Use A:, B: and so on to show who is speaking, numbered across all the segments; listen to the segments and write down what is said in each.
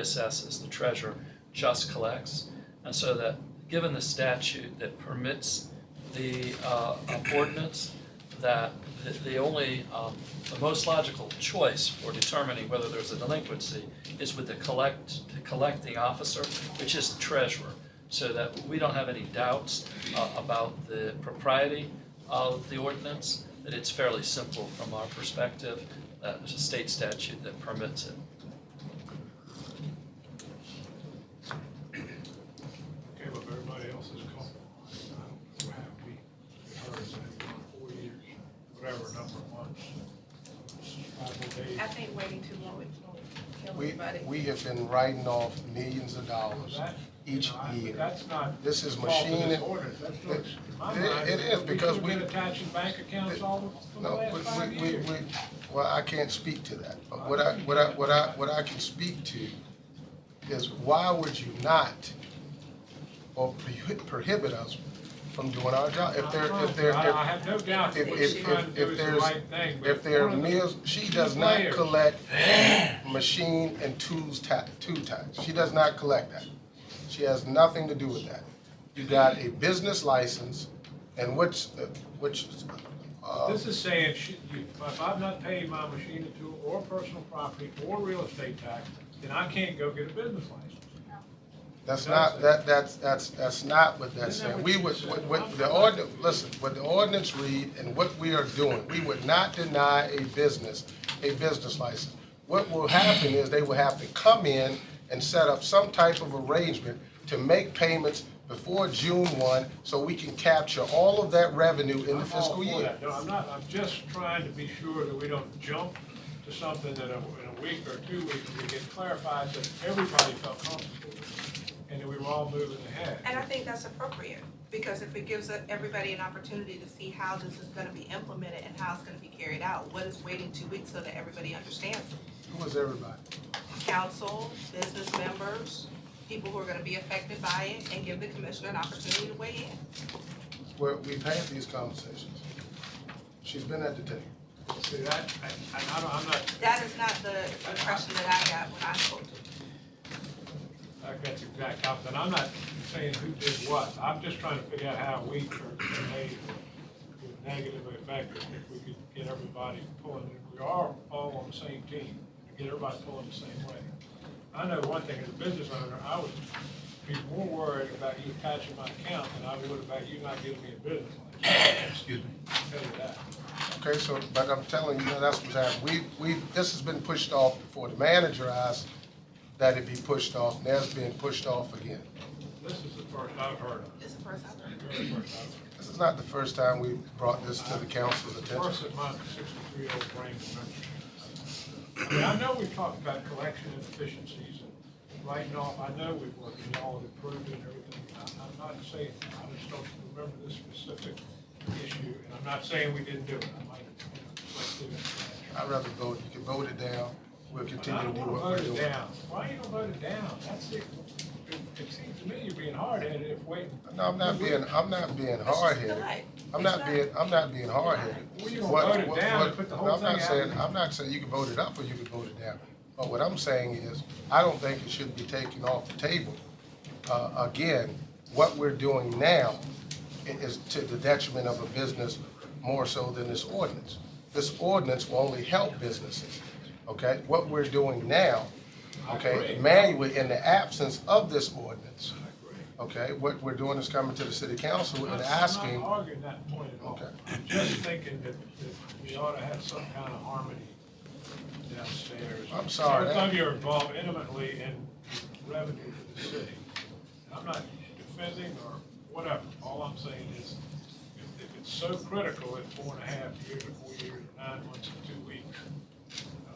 A: assesses, the treasurer just collects. And so that, given the statute that permits the uh, ordinance, that the- the only, um, the most logical choice for determining whether there's a delinquency is with the collect, the collecting officer, which is the treasurer. So that we don't have any doubts uh, about the propriety of the ordinance, that it's fairly simple from our perspective. Uh, There's a state statute that permits it.
B: Okay, but everybody else is called. I don't know how we, heard it, it's been four years, whatever number of months. Five more days.
C: I think waiting too long would kill
D: We,
C: everybody.
D: we have been writing off millions of dollars
B: That-
D: each
B: you know, I-
D: year.
B: That's not.
D: This is
B: the fault of
D: machine
B: this
D: and-
B: ordinance. That's not- in my
D: It-
B: mind,
D: it is because
B: should've
D: we-
B: been attaching bank accounts all for the
D: No,
B: last five
D: we, we, we,
B: years.
D: we- well, I can't speak to that, but what I, what I, what I, what I can speak to is why would you not or prohi- prohibit us from doing our job? If there, if there,
B: I I
D: if,
B: have no doubt that
D: if,
B: what
D: if,
B: she's trying to
D: if,
B: do
D: if
B: is the
D: there's,
B: right thing. but
D: if there are
B: one of the-
D: meals, she
B: key
D: does not
B: players-
D: collect machine and tools tax, two tax. She does not collect that. She has nothing to do with that. You got a business license and which, which, uh,
B: This is saying, should you- if I've not paid my machine and tool or personal property or real estate tax, then I can't go get a business license.
D: That's not, that, that's, that's, that's not what that's saying. We would, what, what, the ordinance, listen, what the ordinance read and what we are doing, we would not deny a business, a business license. What will happen is they will have to come in and set up some type of arrangement to make payments before June one, so we can capture all of that revenue in the
B: I'm all
D: fiscal
B: for
D: year.
B: that. No, I'm not, I'm just trying to be sure that we don't jump to something that in a- in a week or two weeks, we get clarified that everybody felt comfortable with, and that we were all moving ahead.
C: And I think that's appropriate, because if it gives everybody an opportunity to see how this is gonna be implemented and how it's gonna be carried out, what is waiting two weeks so that everybody understands?
D: Who is everybody?
C: Council, business members, people who are gonna be affected by it, and give the commissioner an opportunity to weigh in.
D: Well, we've had these conversations. She's been at the table.
B: See, that, I, I- I don't, I'm not,
C: That is not the impression that I got when I spoke to you.
B: I got the exact opposite, and I'm not saying who did what, I'm just trying to figure out how we could made the negative effect if we could get everybody pulling, if we are all on the same team, get everybody pulling the same way. I know one thing, as a business owner, I would be more worried about you attaching my account than I would about you not giving me a business license. Excuse me. Tell you that.
D: Okay, so, but I'm telling you, that's what's happening. We, we, this has been pushed off before. The manager asked that it be pushed off, and that's being pushed off again.
B: This is the first I've heard of it.
C: This is the first I've heard.
B: Very first I've heard of it.
D: This is not the first time we've brought this to the council's
B: Worse
D: attention.
B: than my sixty-three-year-old brain can remember. I mean, I know we've talked about collection inefficiencies and writing off, I know we've worked, and y'all have improved it and everything. I- I'm not saying, I just don't remember this specific issue, and I'm not saying we didn't do it, I might have, you know, let's do it.
D: I'd rather vote, you can vote it down, we'll
B: But I
D: continue to
B: don't
D: do
B: wanna
D: what we're
B: vote it
D: doing.
B: down, why you gonna vote it down? That's it, it it seems to me you're being hard-headed if waiting.
D: No, I'm not being, I'm not being
C: It's just the
D: hard-headed.
C: light.
D: I'm
C: It's
D: not being, I'm not being hard-headed.
B: Well, you gonna
D: What-
B: vote it
D: what-
B: down and
D: what-
B: put the
D: no,
B: whole
D: I'm not
B: thing out
D: saying-
B: there?
D: I'm not saying you can vote it up or you can vote it down. But what I'm saying is, I don't think it should be taken off the table. Uh, again, what we're doing now i- is to the detriment of a business more so than this ordinance. This ordinance will only help businesses, okay? What we're doing now,
B: I
D: okay,
B: agree.
D: manually, in the absence of this ordinance, okay? What we're doing is coming to the city council and asking.
B: I'm not arguing that point at all.
D: Okay.
B: I'm just thinking that, that we ought to have some kind of harmony downstairs.
D: I'm sorry,
B: Both of
D: that-
B: you are involved intimately in revenue for the city. And I'm not defending or whatever. All I'm saying is, if, if it's so critical at four and a half years, or four years, or nine months, and two weeks, uh,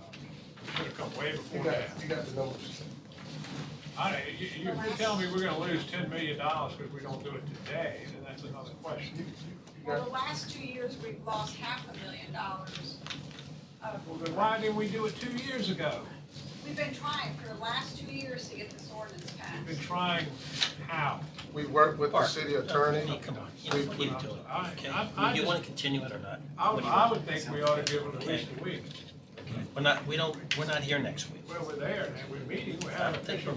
B: we should have come way
D: You
B: before
D: got,
B: that.
D: you got the numbers.
B: I, you, you if you're telling me we're gonna lose ten million dollars because we don't do it today, then that's another question.
E: Well, the last two years, we've lost half a million dollars. of-
B: Well, then why didn't we do it two years ago?
E: We've been trying for the last two years to get this ordinance
B: We've been
E: passed.
B: trying how?
D: We work with the
F: Park.
D: city
F: No,
D: attorney.
F: come on, you
D: We-
F: know, you do it,
B: I-
F: okay?
B: I- I
F: Do you
B: just-
F: wanna continue it or not?
B: I
F: What
B: would,
F: do you want?
B: I would think we ought to give it at least a week. We're not, we don't, we're not here next week.
F: Well, we're there, and we're meeting, we're having
B: I think
F: official